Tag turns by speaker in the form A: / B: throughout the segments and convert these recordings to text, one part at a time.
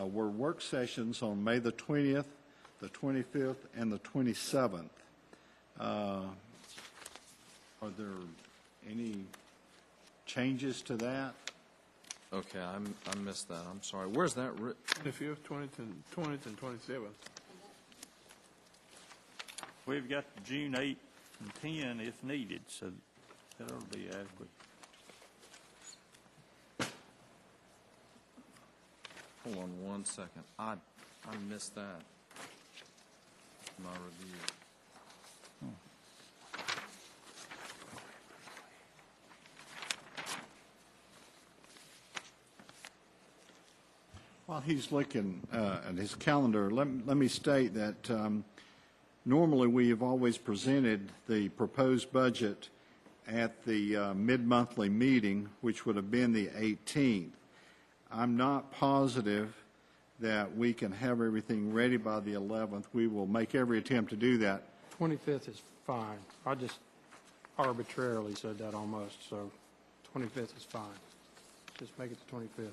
A: Uh, were work sessions on May the 20th, the 25th, and the 27th. Uh, Are there any changes to that?
B: Okay, I'm, I missed that, I'm sorry. Where's that writ,
C: 25th, 20th, and 20th, and 27th.
D: We've got June 8 and 10 if needed, so that'll be adequate.
B: hold on one second. I, I missed that. in My review.
A: While he's looking uh, at his calendar, let let me state that um, normally we have always presented the proposed budget at the uh, mid-monthly meeting, which would have been the 18th. I'm not positive that we can have everything ready by the 11th. We will make every attempt to do that.
E: 25th is fine. I just arbitrarily said that almost, so 25th is fine. Just make it the 25th.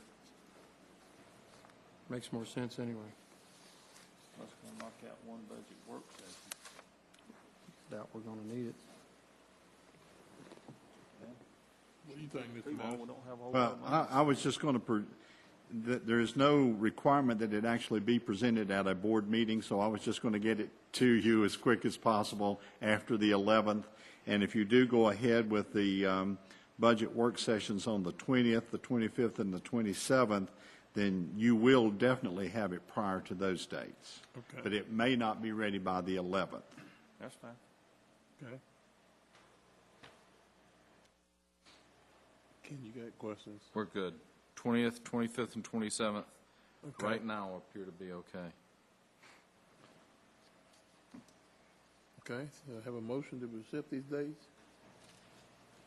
E: Makes more sense anyway.
D: Let's go knock out one budget work session.
E: Doubt we're going to need it.
C: What do you think,
D: We
C: Mr. Moss?
D: don't have a whole lot
A: Well,
D: of money.
A: I I was just going to, there is no requirement that it actually be presented at a board meeting, so I was just going to get it to you as quick as possible after the 11th. And if you do go ahead with the um, budget work sessions on the 20th, the 25th, and the 27th, then you will definitely have it prior to those dates.
C: Okay.
A: But it may not be ready by the 11th.
D: That's fine.
C: Okay. Ken, you got questions?
B: We're good. 20th, 25th, and 27th,
C: Okay.
B: right now appear to be okay.
C: Okay, so I have a motion to accept these dates?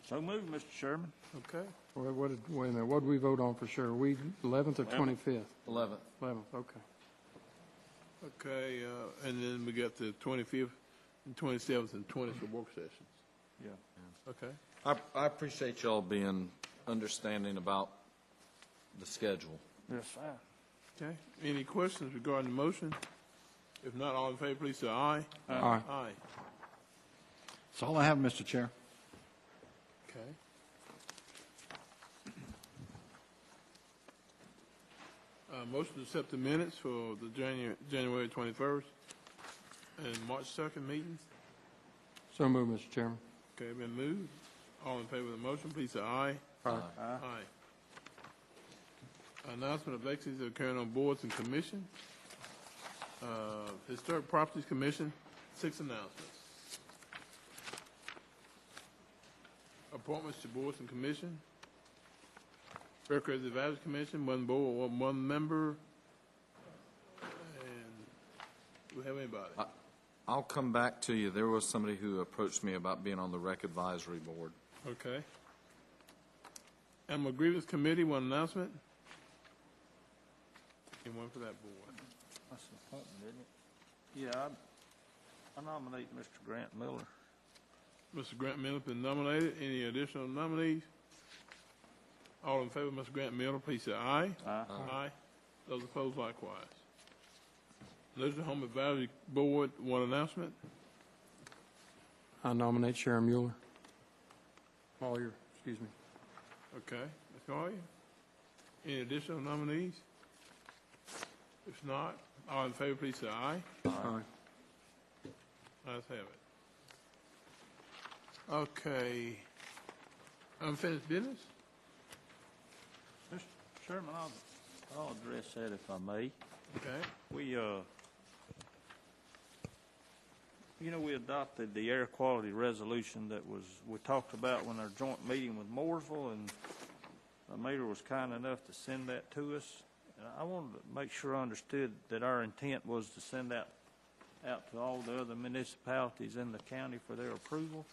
D: So move, Mr. Sherman.
C: Okay.
E: Wha- What, did- wait a minute, what did we vote on for sure? We, 11th or 25th?
B: 11th,
E: 11th, okay.
C: Okay, uh, and then we got the 25th, and 27th, and 20th for work sessions.
D: Yeah.
C: Okay.
B: I, I appreciate y'all being understanding about the schedule.
D: That's fine.
C: Okay, any questions regarding the motion? If not, all in favor, please say aye.
E: All right.
C: Aye.
A: That's all I have, Mr. Chair.
C: Okay. Uh, motion to accept the minutes for the January, January twenty-first and March second meetings.
E: So moved, Mr. Chairman.
C: Okay, been moved. All in favor of the motion, please say aye.
E: Aye.
B: Uh,
C: Aye. Announcement of vacancies that are occurring on boards and commission. Uh, Historic Properties Commission, six announcements. Appointments to boards and commission. Recreation Advisory Commission, one board, one- one member. And do we have anybody?
B: I'll come back to you. There was somebody who approached me about being on the rec advisory board.
C: Okay. Animal Grievance Committee, one announcement. And one for that board.
D: That's an appointment, isn't it? Yeah, I- I nominate Mr. Grant Miller.
C: Mr. Grant Miller has been nominated. Any additional nominees? All in favor of Mr. Grant Miller, please say aye.
D: Aye.
C: Aye. Those opposed likewise. Nursing Home Advisory Board, one announcement.
E: I nominate Sharon Mueller. Mueller, excuse me.
C: Okay. Ms. Collier? Any additional nominees? If not, all in favor, please say aye.
E: Aye.
C: Let's have it. Okay. Unfinished business?
D: Mr. Sherman, I'll, I'll address that if I may.
C: Okay.
D: We, uh, you know, we adopted the air quality resolution that was, we talked about when our joint meeting with Mooresville, and the mayor was kind enough to send that to us. And I wanted to make sure I understood that our intent was to send that out to all the other municipalities in the county for their approval.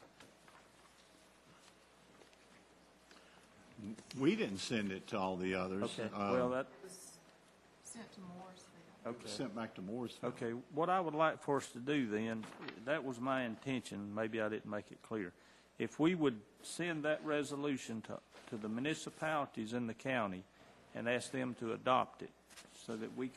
A: We didn't send it to all the others.
D: Okay,
A: Uh,
D: well, that,
F: was sent to Morrisville.
D: okay.
A: Sent back to Morrisville.
D: Okay, what I would like for us to do then, that was my intention, maybe I didn't make it clear. If we would send that resolution to, to the municipalities in the county and ask them to adopt it so that we can.